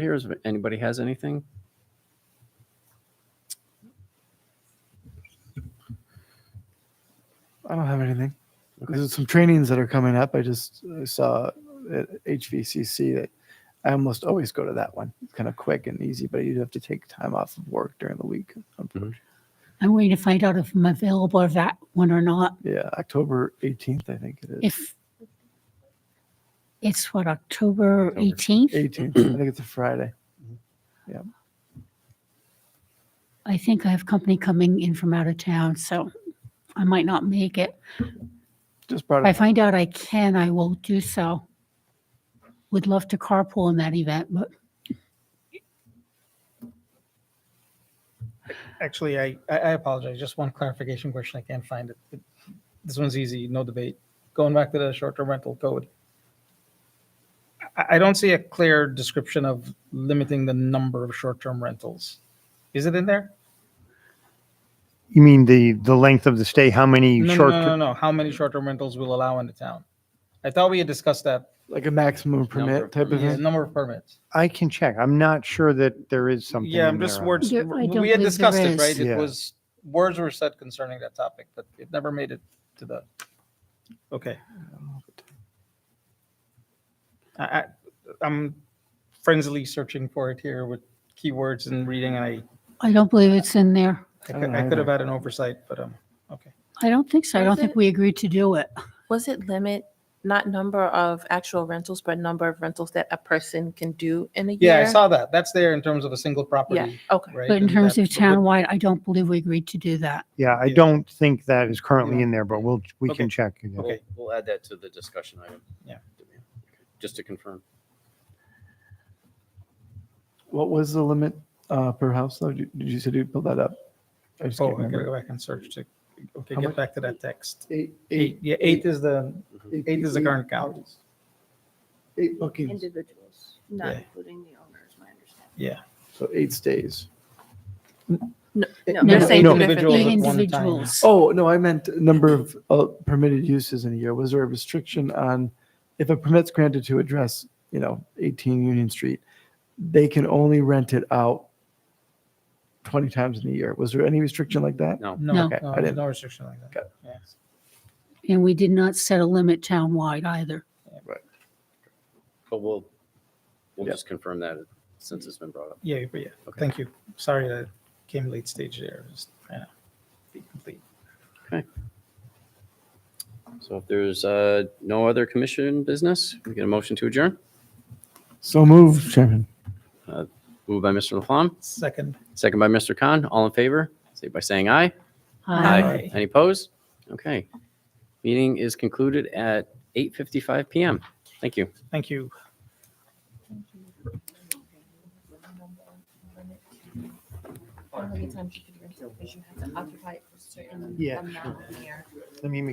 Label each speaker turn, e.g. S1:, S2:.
S1: here? Is anybody has anything?
S2: I don't have anything.
S1: Okay.
S2: There's some trainings that are coming up. I just I saw at HVCC that I almost always go to that one. It's kind of quick and easy, but you do have to take time off of work during the week. Um,
S3: Mm-hmm.
S2: unfortunately.
S4: I'm waiting to find out if I'm available for that one or not.
S2: Yeah, October 18th, I think it is.
S4: If it's what, October
S1: October.
S4: 18th?
S2: 18th, I think it's a Friday.
S4: I think I have company coming in from out of town, so I might not make it.
S2: Just brought
S4: If I
S2: it. up.
S4: find out I can, I will do so. Would love to carpool in that event, but
S3: Actually, I, I I apologize. Just one clarification question. I can't find it. It- This one's easy, no debate. Going back to the short-term rental code. I, I don't see a clear description of limiting the number of short-term rentals. Is it in there?
S5: You mean the, the length of the stay, how many
S3: No, no,
S5: short?
S3: no, no, no. How many short-term rentals will allow in the town? I thought we had discussed that,
S2: Like a maximum permit
S1: of
S2: type of
S3: the
S2: thing.
S3: number of permits.
S5: I can check. I'm not sure that there is something.
S3: Yeah,
S5: in
S3: I'm just
S5: there.
S3: words,
S4: There- I don't
S3: we had
S4: believe
S3: discussed
S4: there
S3: it, right?
S4: is.
S3: It
S5: Yeah.
S3: was, words were said concerning that topic, but it never made it to the, okay. I, I, I'm frenziedly searching for it here with keywords and reading, and I,
S4: I don't believe it's in there.
S3: I
S2: I
S3: cou-
S2: don't
S3: I could have
S2: either.
S3: had an oversight, but, um, okay.
S4: I don't think so. I don't
S6: Is
S4: think
S6: it-
S4: we agreed to do it.
S6: Was it limit, not number of actual rentals, but number of rentals that a person can do in a year?
S3: Yeah, I saw that. That's there in terms of a single
S6: Yeah,
S3: property,
S6: okay.
S3: right?
S4: But in
S3: and
S4: terms
S3: that-
S4: of townwide, I don't believe we agreed to do that.
S5: Yeah, I
S3: Yeah.
S5: don't think that is currently
S3: Yeah.
S5: in there, but we'll, we
S3: Okay.
S5: can check. again.
S3: Okay.
S1: We'll we'll add that to the discussion item.
S3: Yeah.
S1: Just to confirm.
S2: What was the limit uh, per house though? Did did you say you pulled that up? I just
S3: Oh,
S2: can't
S3: I gotta
S2: remember.
S3: go back and search to, okay,
S2: How
S3: get
S2: much-
S3: back to that text.
S2: Eight,
S3: Eight, yeah, eight is the, eight is the current count.
S2: counties. Eight bookings,
S7: individuals, not
S3: Yeah.
S7: including the owners, my understanding.
S3: yeah.
S2: so eight stays.
S7: No,
S4: No,
S7: they're saying
S5: no.
S7: two different
S3: Individuals
S7: things.
S3: at one time.
S4: Individuals.
S2: Oh, no, I meant number of uh, permitted uses in a year. Was there a restriction on if a permit's granted to address, you know, 18 Union Street, they can only rent it out 20 times in a year? Was there any restriction like that?
S1: No.
S4: No.
S3: No, no,
S2: Okay, I
S3: there's
S2: didn't-
S3: no restriction like that. Yeah.
S4: And we did not set a limit townwide either.
S1: But we'll, we'll
S2: Yeah.
S1: just confirm that since it's been brought up.
S3: Yeah, but yeah,
S1: Okay.
S3: thank you. Sorry that came late stage there. Just trying to be complete.
S1: So if there's uh, no other commission business, we get a motion to adjourn.
S2: So moved, Chairman.
S1: Moved by Mr. Laflamme,
S3: Second.
S1: second by Mr. Khan. All in favor, say by saying aye.
S4: Aye.
S3: Aye.
S1: Any opposed? Okay. Meeting is concluded at 8:55 PM. Thank you.
S3: Thank you.
S6: How many times you could rent it, because you have to occupy it for a certain
S5: Yeah.
S6: amount of year.
S5: Let me make